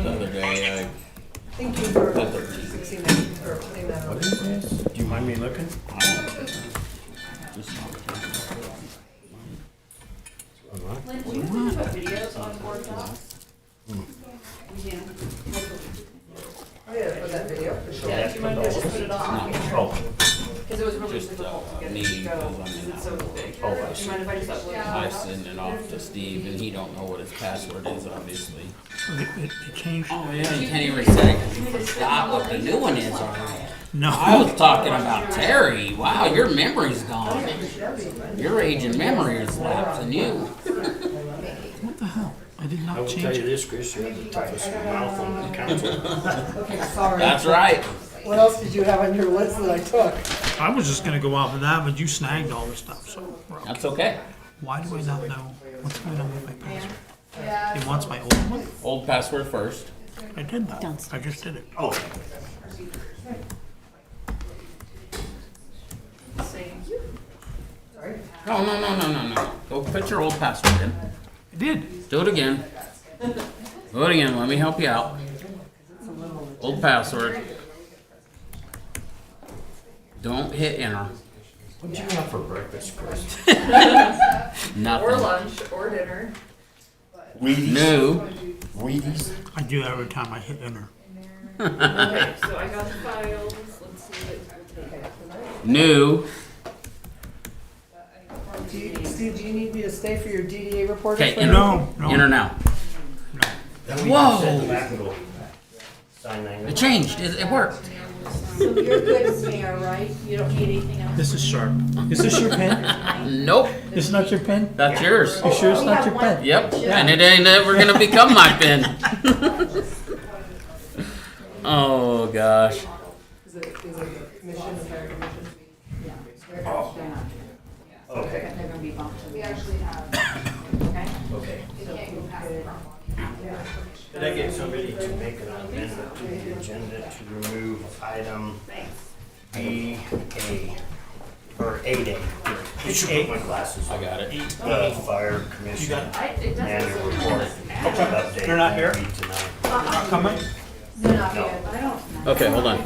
yesterday, Thank you for fixing that, for putting that on. Do you mind me looking? Lynn, do you have to put videos on board docs? We can. Oh, yeah, for that video, for sure. Yeah, if you might as well just put it on here, Oh, because it was really Just, difficult uh, to get me, it to 'cause go, I'm because in it's so that big. Oh, I Do you mind if I just upload it? I send it off to Steve, and he don't know what his password is, obviously. It, it it changed. Oh yeah, you can't even set it 'cause you forgot what the new one is already. I No, was talking about Terry. Wow, your memory's gone. Your age and memory is lapsing you. what the hell? I did I not will tell change you it. this, Chris, you have the toughest mouth on the council. Okay, sorry. That's right. What else did you have on your list that I took? I was just gonna go off of that, but you snagged all the stuff, so we're okay. That's okay. Why do I not know what's going on with my password? It wants my old one? Old password first. I did that. I just did it. Oh, Same. No, no, no, no, no, no. Go put your old password in. I did. Do it again. Do it again. Let me help you out. Old password. Don't hit enter. what'd you have for breakfast, Chris? Or Nothing. lunch, or dinner. Wheaties, New. Wheaties. I do that every time I hit enter. Okay, so I got the files, let's see what we'll New. Do you, Steve, do you need me to stay for your DDA report? or Okay, something? enter. No, no. Enter now. Then we Whoa. set the back door. Sign It language. changed. It, it worked. So you're good, Mayor, right? You don't need anything else? This is sharp. Is this your pen? Nope. It's not your pen? That's yours. You sure it's We not have your one. pen? Yep, and it ain't ever gonna become my pen. oh gosh. Is it, is it the mission, the fire commission? Okay, They're gonna be bumped to the- okay. Did I get somebody to make an amendment to the agenda to remove item B A? Or eight A? I should put my glasses on. I got it. Uh, fire commission I, it doesn't annual seem like report. it's Update They're not here? Coming? They're not No. good. I don't know. Okay, hold on.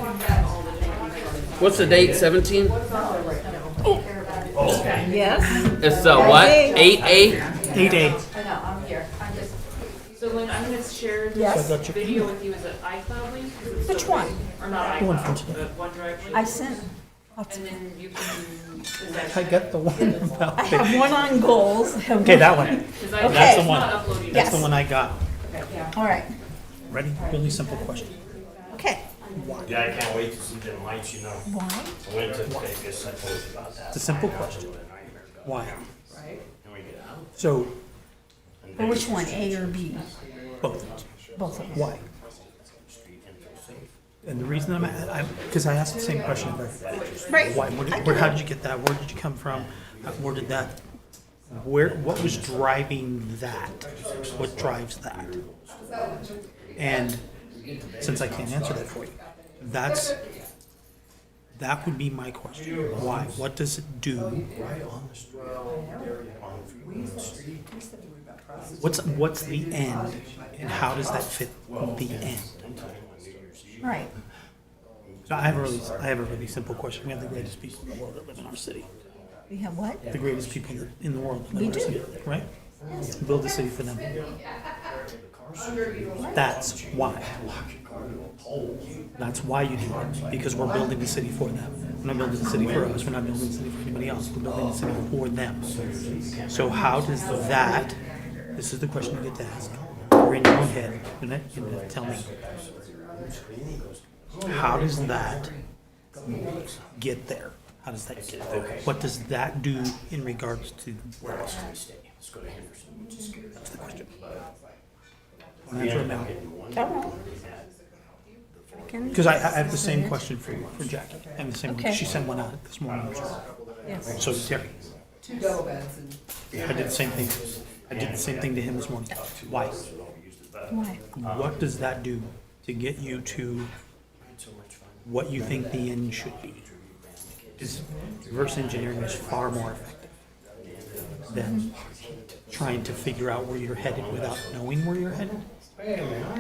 What's the date? Seventeen? Oh, Okay. Yes. It's uh, what? Eight A? Eight eight. I know, I'm here. I'm just, So Lynn, I'm gonna share Yes. this video with you as an iCloud link. Which one? Or not The one from iCloud, today. but OneDrive link. I sent, And then you can, is I that, got the one about. I have one on goals. I have Okay, one- that one. because I, That's the it's one. not uploading. That's the one I got. All right, Ready? Really simple question. okay. Yeah, I can't wait to see them lights, you know. Why? I went to take a second about that. It's a simple question. Why? Right? Can we get out? So, And Or then which one, A or B? both. Both of them. Why? street info safe. And the reason I'm, I, because I asked the same question of everybody. Right. Why, where, did- where, how did you get that? Where did you come from? Uh, Where did that, where, what was driving that? What drives that? And since I can't answer that for you, that's, that would be my question. Why? What does it do? Right on the street. On the street. What's, what's the end? And how does that fit the end? Sometime on New Year's Eve. Right. So I have a really, I have a really simple question. We have the greatest people in the world that live in our city. We have what? the greatest people in the world. We do. Right? Build a city for them. um, That's why. That's why you do it, because we're building the city for them. We're not building the city for us, we're not building the city for anybody else, we're building the city for them. So how does that, this is the question you get to ask, or in your own head, you're not- you're gonna tell me. How does that get there? How does that get there? What does that do in regards to Where else can we stay? Let's go to Henderson, which is scary. that's the question. Answer it now. Because I, I have the same question for you, for Jackie. I have the same, Okay. she sent one out this morning. Yes. So did Terry, Two double beds and. I did the same thing. I did the same thing to him this morning. Why? Why? What does that do to get you to what you think the end should be? Is reverse engineering is far more effective than trying to figure out where you're headed without knowing where you're headed.